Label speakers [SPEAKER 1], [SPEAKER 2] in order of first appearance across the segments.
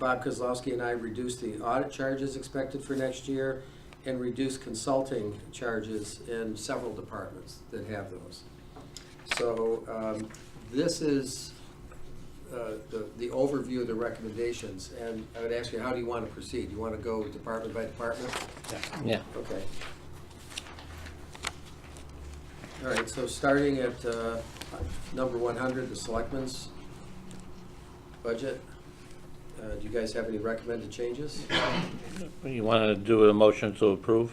[SPEAKER 1] Bob Kozlowski and I reduced the audit charges expected for next year and reduced consulting charges in several departments that have those. So um, this is uh, the the overview of the recommendations, and I would ask you, how do you want to proceed? Do you want to go department by department?
[SPEAKER 2] Yeah.
[SPEAKER 1] Okay. All right, so starting at uh, number 100, the selectmen's budget. Uh, Do you guys have any recommended changes?
[SPEAKER 2] You want to do a motion to approve?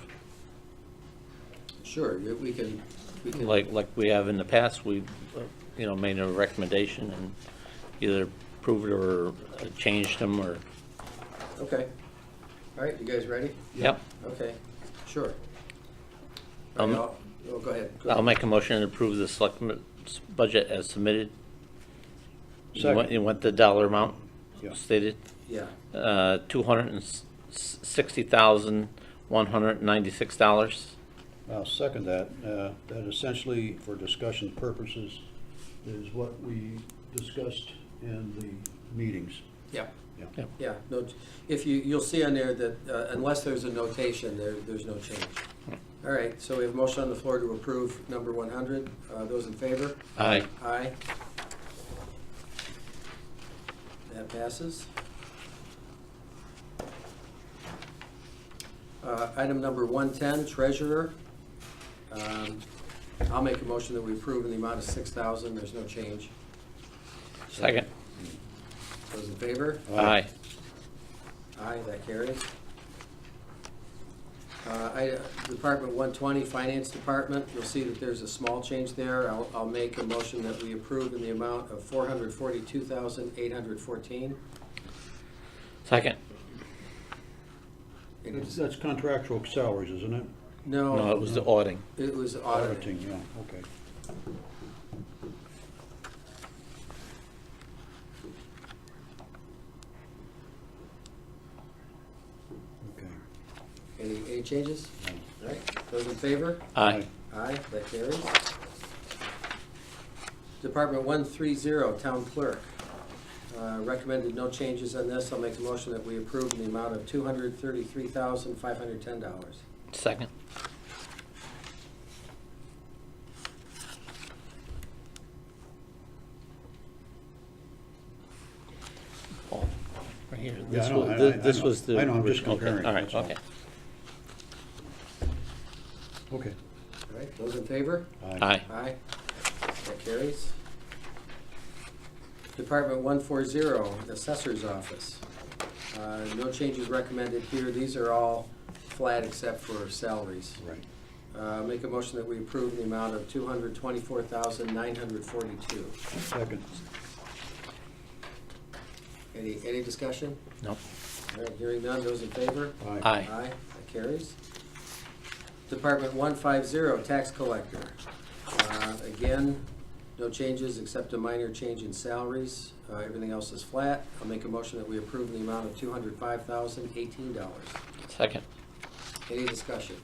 [SPEAKER 1] Sure, we we can, we can.
[SPEAKER 2] Like, like we have in the past, we, uh, you know, made a recommendation and either approved or uh, changed them or,
[SPEAKER 1] Okay. All right, you guys ready?
[SPEAKER 2] yep.
[SPEAKER 1] Okay, sure. All
[SPEAKER 2] Um,
[SPEAKER 1] right, I'll- Oh, go ahead. go
[SPEAKER 2] I'll
[SPEAKER 1] ahead.
[SPEAKER 2] make a motion to approve the selectmen's budget as submitted. You want,
[SPEAKER 3] Second.
[SPEAKER 2] you want the dollar amount
[SPEAKER 3] Yeah.
[SPEAKER 2] stated?
[SPEAKER 1] Yeah,
[SPEAKER 2] Uh, two hundred and sixty thousand, one hundred and ninety-six dollars.
[SPEAKER 3] I'll second that. Uh, That essentially, for discussion purposes, is what we discussed in the meetings.
[SPEAKER 1] yeah.
[SPEAKER 3] Yeah.
[SPEAKER 1] Yeah, no, if you, you'll see on there that uh, unless there's a notation, there, there's no change.
[SPEAKER 2] Hmm.
[SPEAKER 1] All right, so we have a motion on the floor to approve number one hundred. Uh, those in favor?
[SPEAKER 2] Aye.
[SPEAKER 1] Aye. That passes. Uh, item number one-ten, treasurer. Um, I'll make a motion that we approve in the amount of six thousand. There's no change.
[SPEAKER 2] Second.
[SPEAKER 1] Those in favor?
[SPEAKER 2] Aye.
[SPEAKER 1] Aye, that carries. Uh, I- Department 120, Finance Department, you'll see that there's a small change there. I'll, I'll make a motion that we approve in the amount of 442814
[SPEAKER 2] Second.
[SPEAKER 1] It
[SPEAKER 3] That's
[SPEAKER 1] is-
[SPEAKER 3] that's contractual salaries, isn't it?
[SPEAKER 2] No, it
[SPEAKER 1] No,
[SPEAKER 2] was the auditing.
[SPEAKER 1] it was auditing.
[SPEAKER 3] Yeah, okay. Okay.
[SPEAKER 1] Any, any changes? All right, those in favor?
[SPEAKER 2] Aye.
[SPEAKER 1] Aye, that carries. Department 130, Town Clerk. Uh, Recommended no changes on this. I'll make a motion that we approve in the amount of $233,510.
[SPEAKER 2] Second. Paul, Right here.
[SPEAKER 3] Yeah, I
[SPEAKER 2] This
[SPEAKER 3] know,
[SPEAKER 2] was-
[SPEAKER 3] I- I- I
[SPEAKER 2] This
[SPEAKER 3] know.
[SPEAKER 2] was the.
[SPEAKER 3] I know, I'm just
[SPEAKER 2] original. Okay,
[SPEAKER 3] comparing,
[SPEAKER 2] All right,
[SPEAKER 3] that's all.
[SPEAKER 2] okay.
[SPEAKER 3] Okay.
[SPEAKER 1] All right, those in favor?
[SPEAKER 2] Aye.
[SPEAKER 1] Aye, that carries. Department 140, Assessor's Office. Uh, No changes recommended here. These are all flat except for salaries.
[SPEAKER 3] Right.
[SPEAKER 1] Uh, Make a motion that we approve the amount of two hundred twenty-four thousand nine hundred forty-two.
[SPEAKER 3] Second.
[SPEAKER 1] Any, any discussion?
[SPEAKER 2] No.
[SPEAKER 1] All right, hearing none, those in favor?
[SPEAKER 2] Aye.
[SPEAKER 1] Aye, that carries. Department one five zero, tax collector. Uh, Again, no changes except a minor change in salaries. Uh, Everything else is flat. I'll make a motion that we approve the amount of two hundred five thousand eighteen dollars.
[SPEAKER 2] Second.
[SPEAKER 1] Any discussion?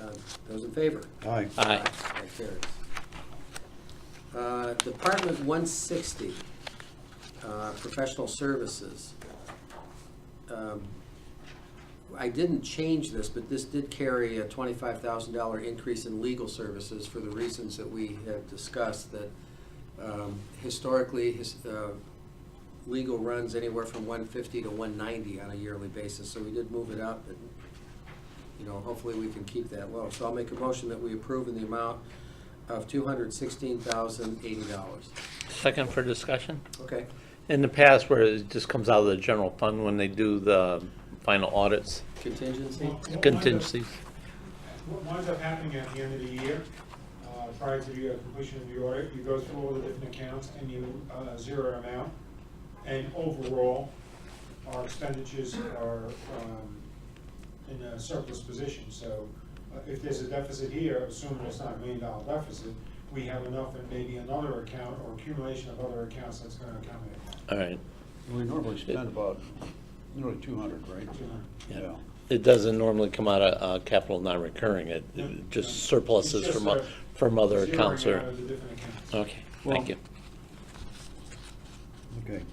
[SPEAKER 1] Uh, Those in favor?
[SPEAKER 3] Aye.
[SPEAKER 2] Aye.
[SPEAKER 1] That carries. Uh, Department 160, uh, Professional Services. Um, I didn't change this, but this did carry a $25,000 increase in legal services for the reasons that we have discussed, that um, historically, his- uh, legal runs anywhere from 150 to 190 on a yearly basis, so we did move it up, and you know, hopefully we can keep that low. So I'll make a motion that we approve in the amount of two hundred sixteen thousand eighty dollars.
[SPEAKER 2] Second for discussion.
[SPEAKER 1] Okay,
[SPEAKER 2] In the past, where it just comes out of the general fund when they do the final audits,
[SPEAKER 1] contingency?
[SPEAKER 4] Well,
[SPEAKER 2] contingencies.
[SPEAKER 4] What winds up happening at the end of the year, uh, prior to the uh, completion of the audit, you go through all the different accounts and you uh, zero them out. And overall, our expenditures are um, in a surplus position. So uh, if there's a deficit here, assuming it's not a million dollar deficit, we have enough in maybe another account or accumulation of other accounts that's going to accommodate that.
[SPEAKER 2] All right.
[SPEAKER 3] We normally spend about nearly two hundred, right?
[SPEAKER 2] Yeah.
[SPEAKER 3] Yeah.
[SPEAKER 2] It doesn't normally come out of uh, capital non-recurring, it it
[SPEAKER 4] Yeah.
[SPEAKER 2] just surpluses
[SPEAKER 4] It's just
[SPEAKER 2] from, o-
[SPEAKER 4] a
[SPEAKER 2] from other accounts
[SPEAKER 4] Zeroing
[SPEAKER 2] or,
[SPEAKER 4] out of the different accounts.
[SPEAKER 2] okay, thank you.
[SPEAKER 3] Okay.